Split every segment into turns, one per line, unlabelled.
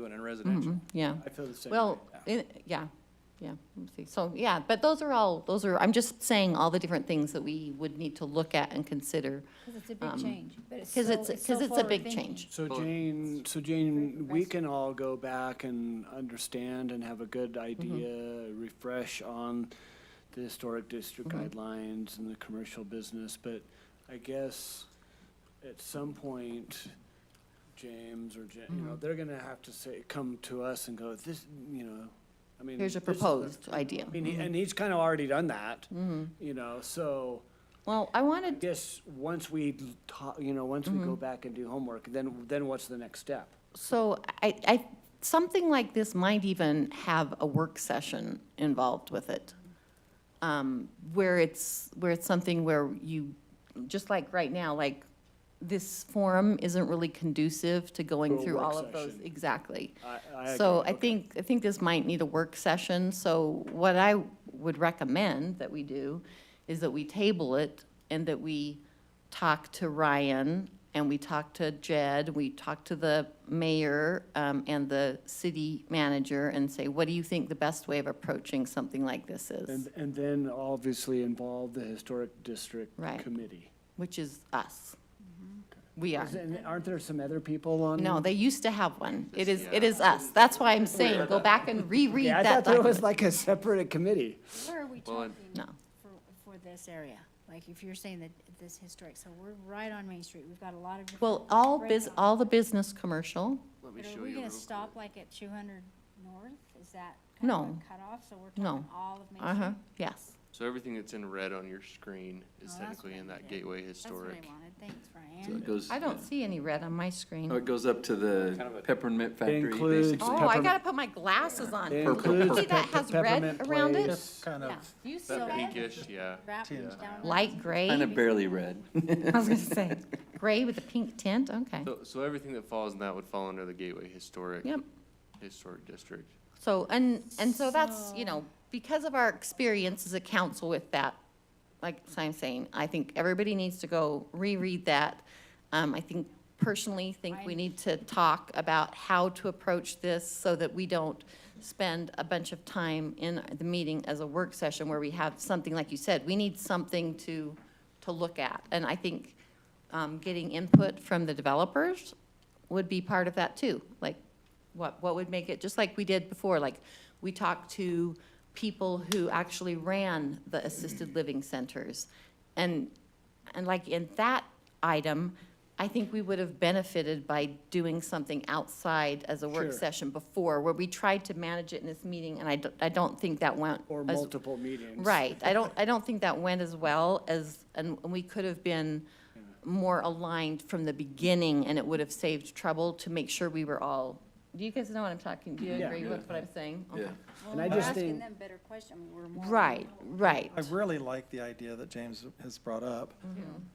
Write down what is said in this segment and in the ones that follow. doing in residential.
Mm-hmm, yeah.
I feel the same. way.
Well, it- yeah, yeah, let me see. So, yeah, but those are all, those are, I'm just saying all the different things that we would need to look at and consider.
Because it's a
Um,
big change, but it's so,
Because it's,
so
because it's a big
forward-thinking.
change.
So
Well-
Jane, so Jane, we
Refresh.
can all go back and understand and have a good
Mm-hmm.
idea, refresh on the historic district
Mm-hmm.
guidelines and the commercial business, but I guess at some point, James or Jen, you know,
Mm-hmm.
they're gonna have to say, come to us and go, this, you know, I mean.
Here's a
this is the-"
proposed Mm-hmm. idea.
I mean, he- and he's kind of already done that, you know, so.
Well, I
I
wanted,
guess, once we talk, you know, once we
Mm-hmm.
go back and do homework, then, then what's the next step?
so I, I, something like this might even have a work session involved with it. um, where it's, where it's something where you, just like right now, like, this forum isn't really conducive to
To
going
a
through
work
all of those.
session.
Exactly.
I- I
So
agree,
I
okay.
think, I think this might need a work session, so what I would recommend that we do is that we table it and that we talk to Ryan and we talk to Jed, we talk to the mayor um, and the city manager and say, what do you think the best way of approaching something like this is?
And, and then obviously involve the historic district
Right.
committee.
which is us. We are.
Is- And aren't there some other people on?
No, they used to have one. It is, it is us. That's why I'm saying, go back and reread
Yeah, I
that
thought there was
document.
like a separate committee.
Where are we
Well,
talking
and-
No.
for, for this area? Like, if you're saying that this historic, so we're right on Main Street, we've got a lot of. different
Well, all bus,
breakouts.
all the business commercial,
Let me
But
show
are
you
we
real
gonna
quick.
stop like at two hundred north? Is that kind of a
No.
cutoff? So we're
No.
talking all of Main Street?
uh-huh, yes.
So everything that's in red on your screen is
Oh, that's
technically
what
in
I
that
did.
gateway
That's what
historic.
I wanted. Thanks,
So it
Brian.
goes,
I don't see any red on my
oh,
screen.
it goes up to the peppermint factory,
includes-
basically.
Oh, I
peppermint-
gotta put my glasses on.
It
Do you
includes
See that has red
Peppermint
around it?
Place.
kind of,
Yeah.
Do you see
So
That
that?
pinkish, yeah.
Wrap down.
Light
Kind
gray?
of barely red.
I was gonna say, gray with a pink tint, okay.
So, so everything that falls in that would fall under the gateway historic.
Yep.
Historic district.
So, and, and so that's, you know, because of our experience as a council with that, like I'm saying, I think everybody needs to go reread that. Um, I think personally, think we need to talk about how to approach this so that we don't spend a bunch of time in the meeting as a work session where we have something, like you said, we need something to, to look at. And I think, um, getting input from the developers would be part of that too. Like, what, what would make it, just like we did before, like, we talked to people who actually ran the assisted living centers. And, and like in that item, I think we would have benefited by doing something outside as a work
Sure.
session before, where we tried to manage it in this meeting, and I don't, I don't think that went.
Or
as-
multiple meetings.
Right, I don't, I don't think that went as well as, and and we could have been more aligned from the beginning, and it would have saved trouble to make sure we were all, do you guys know what I'm talking, do you
Yeah.
agree with what I'm saying?
Yeah.
Okay.
Well,
And I
we're
just
asking
think-
them better questions. I mean, we're more.
Right, right,
I really like the idea that James has brought up,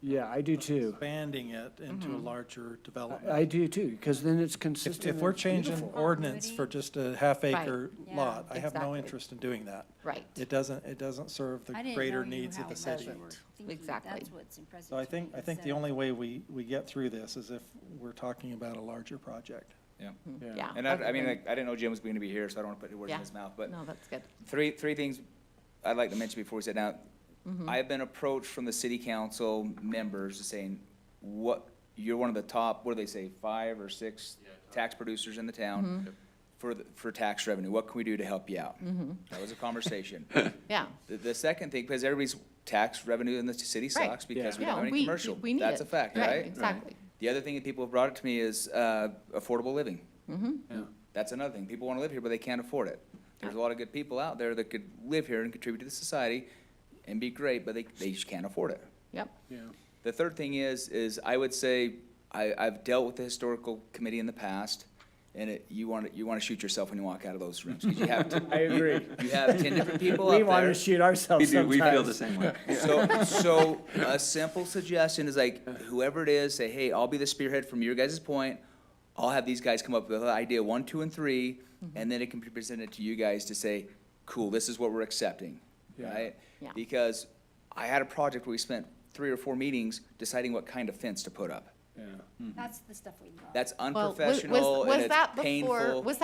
Yeah, I do too.
expanding it into a larger
Mm-hmm. I-
development.
I do too, because then it's
If,
consistent.
if we're
and
changing
beautiful.
ordinance for just a half acre
Yeah,
lot, I have no
exactly.
interest in doing that.
right.
It doesn't, it doesn't serve
I
the
didn't
greater
know you
needs of
how
the
much
city.
you were thinking.
Exactly.
That's what's impressive.
So I
to me,
think, I
is
think the
that-
only way we, we get through this is if we're talking about a larger project.
Yeah.
Yeah.
And I, I mean,
Hmm. okay.
like, I didn't know Jim was going to be here, so I don't want to put words
Yeah.
in his mouth. But
No, that's good.
three, three things I'd like to mention before we sit down.
Mm-hmm.
I've been approached from the city council members saying, what, you're one of the top, what do they say, five or six tax producers in the
Mm-hmm.
town for, the- for tax revenue. What can we do to help you out?
Mm-hmm.
That was a conversation.
Yeah,
The, the second thing, because everybody's tax revenue in the city
Right.
sucks because we
Yeah.
don't have
Yeah, we-
any commercial.
we need
That's
it.
a fact,
Right,
right?
exactly.
The other thing that people have brought up to me is, uh, affordable living.
Yeah.
That's another thing. People wanna live here, but they can't afford it. There's a lot of good people out there that could live here and contribute to the society and be great, but they, they just can't afford it.
yep,
Yeah.
The third thing is, is I would say, I, I've dealt with the historical committee in the past, and it, you wanna, you wanna shoot yourself when you walk out of those rooms, 'cause you have, to-
I agree.
you have ten different people up
We
there.
want to shoot
We
ourselves
do, we feel the
sometimes.
same way.
So, so a simple suggestion is like, whoever it is, say, hey, I'll be the spearhead from your guys' point. I'll have these guys come up with idea one, two, and three, and then it can be presented to you guys to say, cool, this is what we're accepting,
Yeah.
right?
Yeah.
Because I had a project where we spent three or four meetings deciding what kind of fence to put up.
Yeah.
That's the stuff we love.
That's
well, was- was-
unprofessional and
was
it's
that before-
painful.
Was that